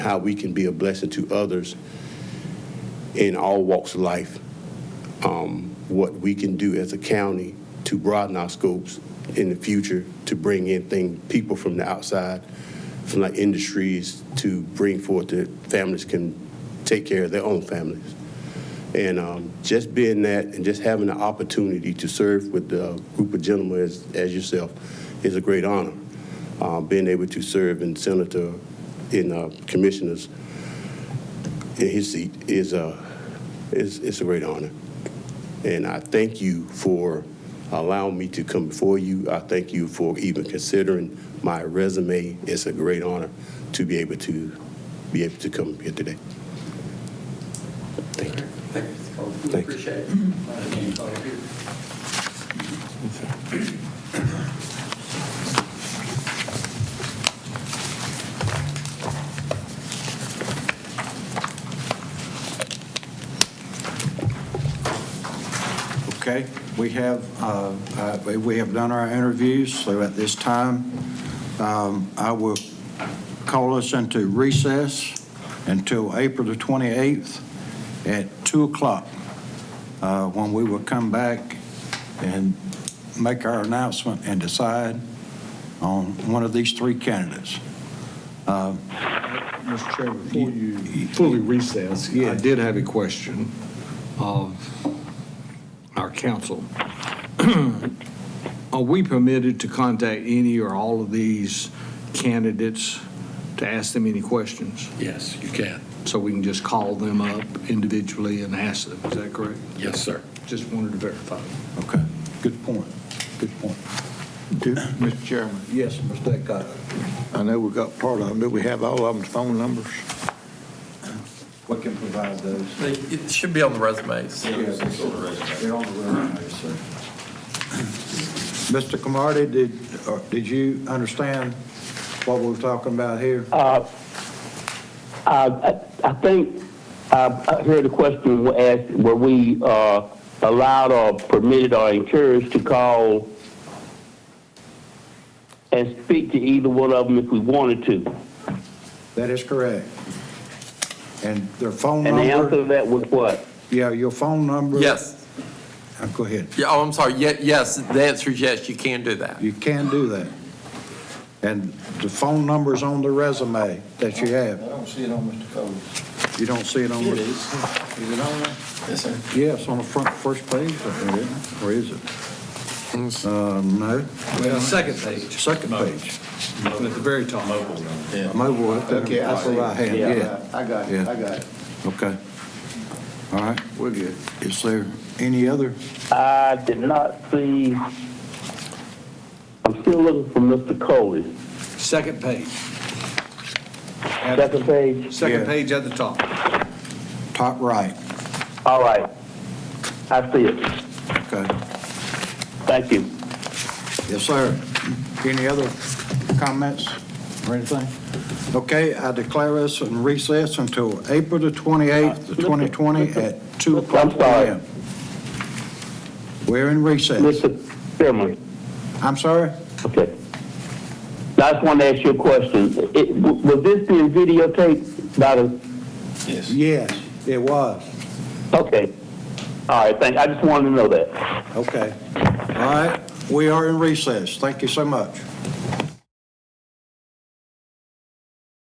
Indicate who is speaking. Speaker 1: how we can be a blessing to others in all walks of life. Um, what we can do as a county to broaden our scopes in the future to bring in thing, people from the outside, from like industries to bring forth that families can take care of their own families. And um, just being that and just having the opportunity to serve with a group of gentlemen as, as yourself is a great honor. Um, being able to serve in Senator, in uh, commissioners, in his seat is a, is, is a great honor. And I thank you for allowing me to come before you. I thank you for even considering my resume. It's a great honor to be able to, be able to come here today. Thank you.
Speaker 2: Thank you, Mr. Coleman. We
Speaker 1: Thank you.
Speaker 2: appreciate it. Thank you.
Speaker 3: Okay, we have, uh, uh, we have done our interviews, so at this time, um, I will call us into recess until April the 28th at 2 o'clock, uh, when we will come back and make our announcement and decide on one of these three candidates.
Speaker 4: Mr. Chairman, before you fully recess, I did have a question of our council. Are we permitted to contact any or all of these candidates to ask them any questions?
Speaker 5: Yes, you can.
Speaker 4: So we can just call them up individually and ask them, is that correct?
Speaker 5: Yes, sir.
Speaker 4: Just wanted to verify.
Speaker 3: Okay, good point, good point.
Speaker 6: Do- Mr. Chairman,
Speaker 3: Yes, Mr. Acosta.
Speaker 6: I know we got part of them. Do we have all of them's phone numbers?
Speaker 3: We can provide those.
Speaker 2: They- It should be on the resumes.
Speaker 3: They're on the resume, sir. Mr. Camardi, did, uh, did you understand what we're talking about here?
Speaker 7: Uh. I, I I think, I I heard the question was asked, were we uh, allowed or permitted or encouraged to call and speak to either one of them if we wanted to?
Speaker 3: That is correct. And their phone
Speaker 7: And the answer
Speaker 3: number?
Speaker 7: to that was what?
Speaker 3: Yeah, your phone number?
Speaker 2: Yes,
Speaker 3: Uh, Go ahead.
Speaker 2: yeah, oh, I'm sorry, Ye- yes, the answer is yes, you can do that.
Speaker 3: You can do that. And the phone number's on the resume that you have.
Speaker 6: don't see it on Mr. Cole's.
Speaker 3: You don't see it on the...
Speaker 6: Is it on there? Yes, sir.
Speaker 3: Yes, on the front, first page, I think, isn't it? or is it? Uh, no.
Speaker 4: Second page,
Speaker 3: Second page.
Speaker 4: at the very top.
Speaker 3: Mobile, okay, that's what I had, yeah,
Speaker 6: I got
Speaker 3: it, I
Speaker 6: got it.
Speaker 3: okay. All right, we're good. Is there any other?
Speaker 7: I did not see, I'm still looking for Mr. Coley.
Speaker 4: Second page.
Speaker 7: Second page?
Speaker 4: Second
Speaker 3: Yeah.
Speaker 4: page at the top.
Speaker 3: Top right,
Speaker 7: All right. I see it.
Speaker 3: okay.
Speaker 7: Thank you.
Speaker 3: Yes, sir. Any other comments or anything? Okay, I declare us in recess until April the 28th,
Speaker 7: Uh,
Speaker 3: the 2020, at 2
Speaker 7: Mr.
Speaker 3: o'clock
Speaker 7: I'm sorry.
Speaker 3: p.m. We're in recess.
Speaker 7: Mr. Chairman.
Speaker 3: I'm sorry?
Speaker 7: Okay. Now, I just want to ask you a question. It- Was this being videotaped by the,
Speaker 6: Yes.
Speaker 3: Yes, it was.
Speaker 7: okay. All right, thank, I just wanted to know that.
Speaker 3: Okay. All right, we are in recess. Thank you so much.